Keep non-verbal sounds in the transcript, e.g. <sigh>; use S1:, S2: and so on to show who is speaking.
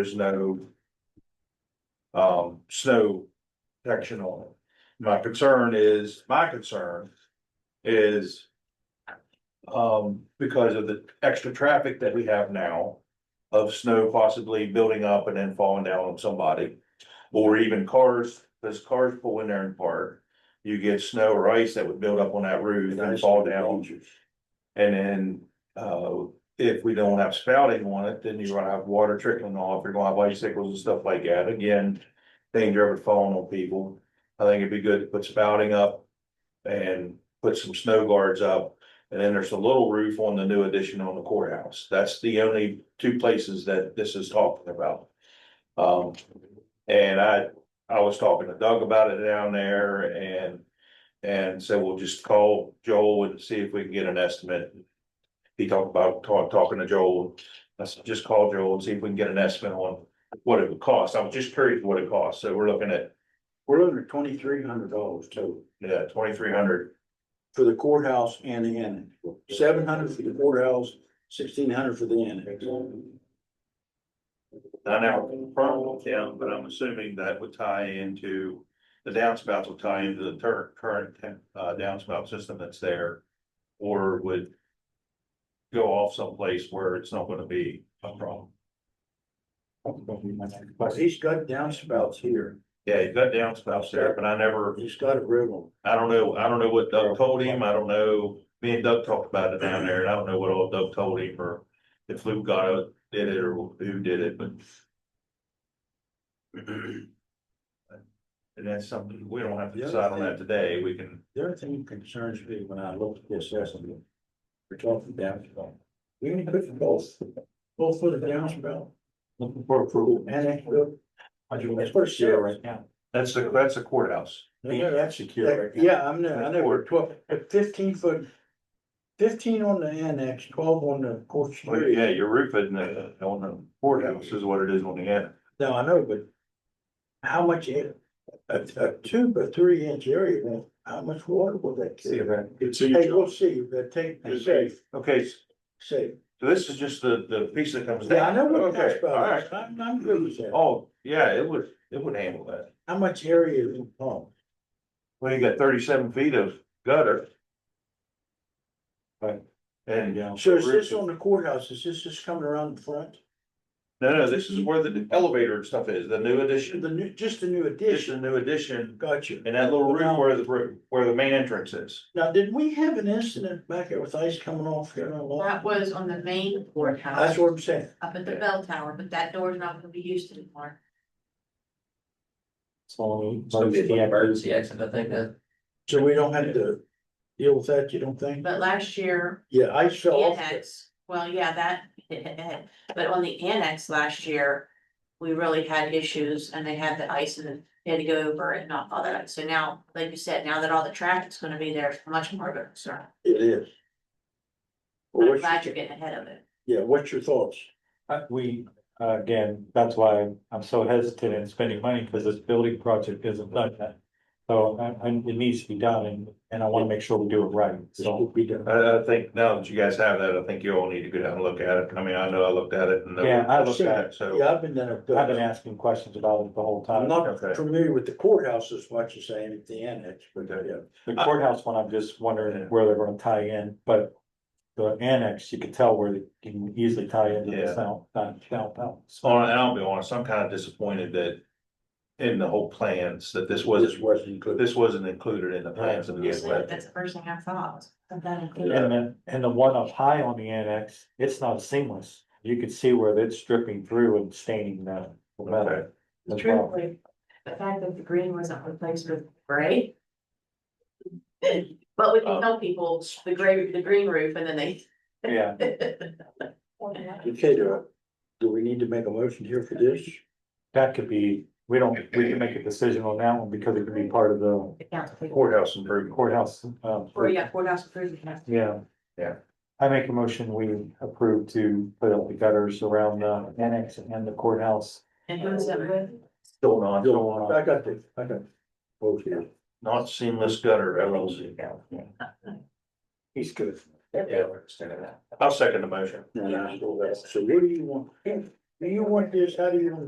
S1: is no. Um, snow protection on it. My concern is, my concern is. Um, because of the extra traffic that we have now. Of snow possibly building up and then falling down on somebody. Or even cars, those cars pull in there and park. You get snow or ice that would build up on that roof and fall down. And then, uh, if we don't have spouting on it, then you're gonna have water trickling off, you're gonna have icicles and stuff like that, again. Danger of it falling on people, I think it'd be good to put spouting up. And put some snow guards up, and then there's a little roof on the new addition on the courthouse, that's the only two places that this is talking about. Um, and I, I was talking to Doug about it down there and. And so we'll just call Joel and see if we can get an estimate he talked about talk, talking to Joel. I said, just call Joel and see if we can get an estimate on what it would cost. I was just curious what it costs. So we're looking at,
S2: We're under twenty-three hundred dollars total
S1: yeah, twenty-three hundred.
S2: for the courthouse and the annex. Seven hundred for the courthouse, sixteen hundred for the annex.
S1: Not out front, yeah, but I'm assuming that would tie into, the downspouts will tie into the tur- current, uh, downspout system that's there. Or would go off someplace where it's not gonna be a problem.
S2: But he's got downspouts here.
S1: Yeah, you've got downspouts there, but I never
S2: He's got a river.
S1: I don't know, I don't know what Doug told him, I don't know, me and Doug talked about it down there, and I don't know what all Doug told him, or if Luke got it, did it, or who did it, but. And that's something, we don't have to decide on that today, we can,
S2: The other thing that concerns me when I look at this estimate, we're talking downspout. We only put for both, both for the downspout. Looking for approval. Annex. That's for sure right now.
S1: that's the, that's the courthouse.
S2: Yeah, that's
S3: secure right now.
S2: Yeah, I'm, there. I know, we're twelve, fifteen foot. Fifteen on the annex, twelve on the court
S1: Well,
S2: street.
S1: Oh, yeah, your roof isn't, uh, on the courthouse is what it is on the end.
S2: No, I know, but. How much, a, a, a two by three inch area, man, how much water will that
S3: See
S2: take?
S3: that.
S2: Hey, we'll see, but take,
S1: It's
S2: safe,
S1: Okay, s-
S2: safe.
S1: so this is just the, the piece that comes down.
S2: Yeah, I know what
S1: Okay,
S2: that's
S1: all
S2: about,
S1: right.
S2: I'm, I'm good with that.
S1: Oh, yeah, it would, it would handle that.
S2: How much area is in
S1: Oh.
S2: pump?
S1: Well, you got thirty-seven feet of gutter.
S3: Right.
S1: And. uh,
S2: So is this on the courthouse, is this just coming around the front?
S1: No, no, this is where the elevator and stuff is, the new
S2: The
S1: addition,
S2: new, just the new
S1: this is
S2: addition,
S1: the new addition,
S2: got you.
S1: and that little room where the, roo- where the main entrance is.
S2: Now, did we have an incident back there with ice coming off here on the lawn?
S4: That was on the main courthouse
S2: That's what I'm saying.
S4: up at the bell tower, but that door is not gonna be used anymore.
S3: So,
S5: So it's an emergency exit, I think that.
S2: So we don't have to deal with that, you don't think?
S4: But last year,
S2: Yeah, ice fell off.
S4: annex, well, yeah, that, <laughs> but on the annex last year. We really had issues and they had the ice and they had to go over it and all all that. So now, like you said, now that all the traffic's gonna be there, it's much more of a concern.
S2: It is. Well,
S4: I'm
S2: what's-
S4: glad you're getting ahead of it.
S2: Yeah, what's your thoughts?
S3: Uh, we, uh, again, that's why I'm so hesitant in spending money, because this building project isn't done yet. So, and, and it needs to be done, and, and I wanna make sure we do it right,
S2: This
S3: so.
S2: will be done.
S1: I, I think now that you guys have that, I think you all need to go down and look at it, I mean, I know I looked at it and.
S3: Yeah, I looked at it,
S1: So,
S2: Yeah, I've been there.
S3: I've been asking questions about it the whole
S2: I'm
S3: time.
S2: not
S1: Okay.
S2: familiar with the courthouse as much as I am at the annex, but uh,
S1: Okay.
S2: yeah.
S3: The courthouse one, I'm just wondering where they're gonna tie in, but the annex, you could tell where you can easily tie into
S1: Yeah.
S3: the south, down, downtown.
S1: so, and I'll be honest, I'm kind of disappointed that in the whole plans, that this
S2: This
S1: wasn't,
S2: wasn't included.
S1: this wasn't included in the plans. to begin
S4: Honestly,
S1: with.
S4: That's the first thing I thought. That that included-
S3: And then, and the one up high on the annex, it's not seamless. You could see where it's dripping through and staining the the metal. as well.
S4: Truthfully, the fact that the green wasn't replaced with gray. But we can tell people the gray, the green roof and then they.
S3: Yeah,
S2: Okay, do, do we need to make a motion here for this?
S3: that could be, we don't, we can make a decision on that one because it could be part of the
S4: The council people,
S1: Courthouse improvement.
S3: courthouse. um,
S4: or yeah, courthouse improvement.
S3: Yeah.
S1: Yeah.
S3: I make a motion, we approve to put up the gutters around the annex and the courthouse.
S4: And who is that with?
S1: Still not.
S3: Go on.
S2: I got this, I got. Both here.
S1: Not seamless gutter LLC.
S3: He's good.
S1: Yeah. I'll second the motion.
S2: And I- So what do you want? Do you want this, how do you want